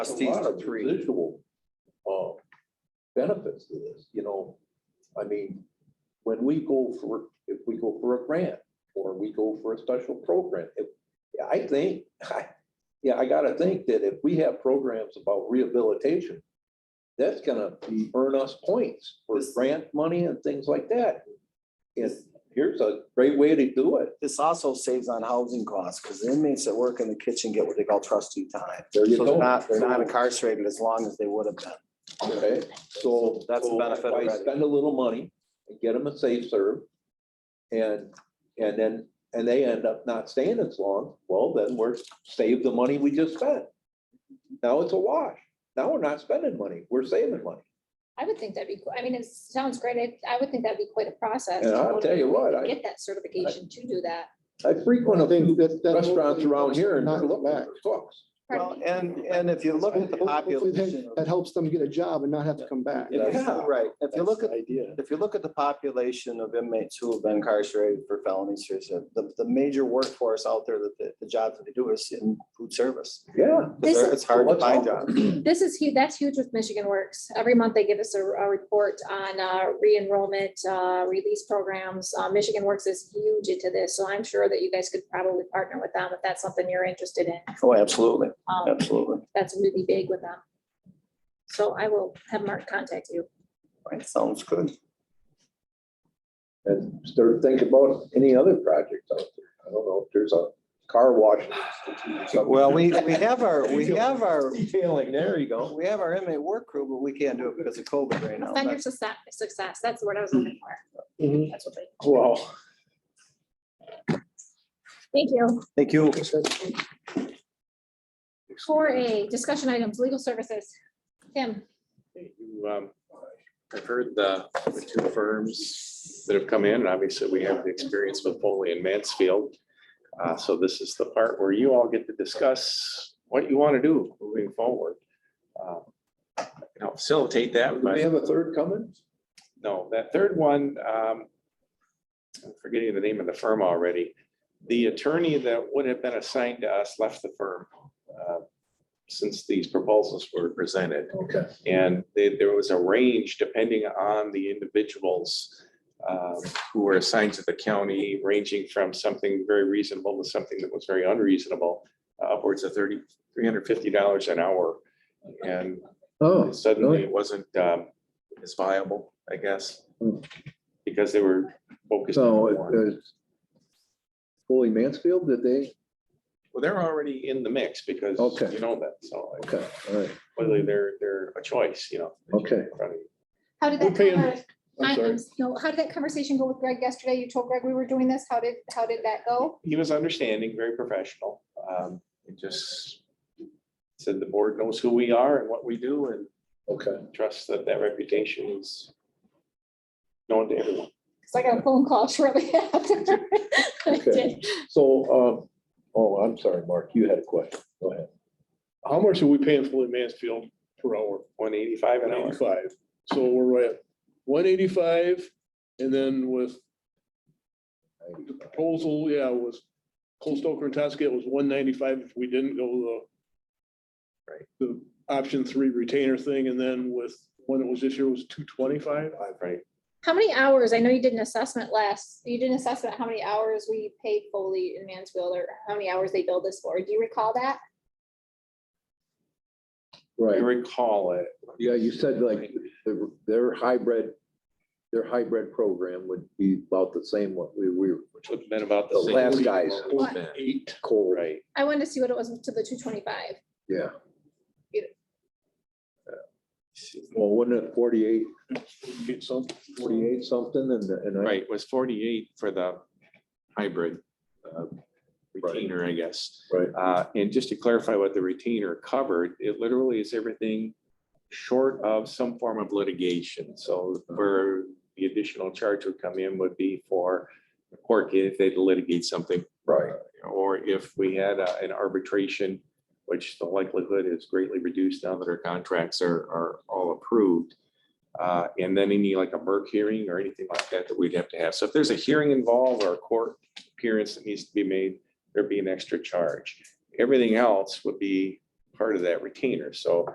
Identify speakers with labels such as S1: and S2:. S1: Trustees
S2: lot of
S1: three.
S2: Residual, uh, benefits to this, you know, I mean, when we go for, if we go for a grant, or we go for a special program, if, I think, yeah, I gotta think that if we have programs about rehabilitation, that's gonna be- earn us points for
S1: This-
S2: grant money and things like that. And here's a great way to do it.
S3: This also saves on housing costs, because inmates that work in the kitchen get what they call trustee time.
S2: There you
S3: So
S2: go.
S3: they're not, they're not incarcerated as long as they would have been.
S2: Okay, so.
S3: That's the
S2: so
S3: benefit of
S2: if I
S3: Red.
S2: Spend a little money and get them a safe serve. And, and then, and they end up not staying as long, well, then we're saved the money we just spent. Now it's a wash. Now we're not spending money, we're saving money.
S4: I would think that'd be, qu- I mean, it sounds great. I- I would think that'd be quite a process.
S2: And
S4: to
S2: I'll tell you what, I-
S4: Get that certification to do that.
S2: I frequent a few
S5: that- that
S2: restaurants
S5: hopefully
S2: around here and
S5: Not
S2: they're
S5: look
S2: looking
S5: back.
S2: for cooks.
S4: Pardon
S3: Well,
S4: me?
S3: and, and if you look at the
S5: Hopefully
S3: population.
S5: that-
S3: of-
S5: That helps them get a job and not have to come back.
S3: if you- Right, if you look at,
S5: idea.
S3: if you look at the population of inmates who have been incarcerated for felonies, here's the, the- the major workforce out there that the, the jobs that they do is in food service.
S2: Yeah.
S4: This-
S3: It's hard to
S2: What's
S3: find
S2: up?
S3: jobs.
S4: This is huge, that's huge with Michigan Works. Every month they give us a, a report on, uh, re-enrollment, uh, release programs. Uh, Michigan Works is huge into this, so I'm sure that you guys could probably partner with them if that's something you're interested in.
S3: Oh, absolutely,
S4: Um,
S3: absolutely.
S4: that's really big with them. So I will have Mark contact you.
S3: Right, Sounds good.
S2: And start thinking about any other projects out there. I don't know if there's a car wash. institute or something.
S3: Well, we, we have our, we have our,
S2: Detailing, there you go.
S3: we have our inmate work crew, but we can't do it because of COVID right now.
S4: Offender
S3: That's-
S4: success, success, that's the word I was
S2: Hmm.
S4: looking for. That's what they,
S5: Oh,
S2: Well.
S4: thank you.
S3: Thank you.
S4: Four A, discussion items, legal services. Tim,
S1: You, um, I've heard the the two firms that have come in, and obviously we have the experience with Foley and Mansfield. Uh, So this is the part where you all get to discuss what you want to do moving forward. Uh, I can help facilitate that,
S2: Do
S1: but
S2: we have a third coming?
S1: no, that third one, um, I'm forgetting the name of the firm already. The attorney that would have been assigned to us left the firm uh, since these proposals were presented.
S2: Okay.
S1: And they- there was a range depending on the individuals um, who were assigned to the county, ranging from something very reasonable to something that was very unreasonable, upwards of thirty, three hundred fifty dollars an hour. And
S2: Oh,
S1: suddenly it wasn't um, as viable, I guess,
S2: Hmm.
S1: because they were focused. on
S2: so
S1: one.
S2: it's Foley Mansfield, did they?
S1: Well, they're already in the mix because
S2: Okay.
S1: you know that, so like,
S2: Okay, all right,
S1: clearly they're, they're a choice, you know.
S2: Okay.
S4: how did
S5: We're paying-
S4: that?
S5: I'm sorry.
S4: I'm, no, how did that conversation go with Greg yesterday? You told Greg we were doing this. How did, how did that go?
S1: He was understanding, very professional. Um, It just said the board knows who we are and what we do and
S2: okay.
S1: trust that that reputation is known to everyone.
S4: Cause I got a phone call shortly after. I
S2: Okay.
S4: did.
S2: So, um, oh, I'm sorry, Mark, you had a question. Go ahead.
S6: How much are we paying Floyd Mansfield per hour?
S1: One eighty-five an
S6: One
S1: hour.
S6: eighty-five. So we're right at one eighty-five and then with the proposal, yeah, was Cole Stoker and Toskett was one ninety-five if we didn't go the
S1: Right.
S6: the option three retainer thing and then with when it was this year was two twenty-five.
S1: Right.
S4: How many hours? I know you did an assessment last, you did an assessment, how many hours we paid Foley in Mansfield or how many hours they billed us for? Do you recall that?
S1: I
S2: Right,
S1: recall it.
S2: yeah, you said like their- their hybrid, their hybrid program would be about the same what we we were.
S1: Which would have been about
S2: The
S1: the same.
S2: last guys.
S6: Eight.
S2: Cold,
S1: Right.
S4: I wanted to see what it was to the two twenty-five.
S2: yeah.
S4: Yeah.
S2: Well, wasn't it 48,
S6: Get some.
S2: 48 something and, the- and I,
S1: Right, it was forty-eight for the hybrid uh,
S2: Right.
S1: retainer, I guess.
S2: right,
S1: Uh, And just to clarify what the retainer covered, it literally is everything short of some form of litigation. So where the additional charge would come in would be for the court if they litigate something,
S2: right,
S1: or if we had uh, an arbitration, which the likelihood is greatly reduced now that our contracts are, are all approved. Uh, And then any like a Merck hearing or anything like that that we'd have to have. So if there's a hearing involved or a court appearance that needs to be made, there'd be an extra charge. Everything else would be part of that retainer. So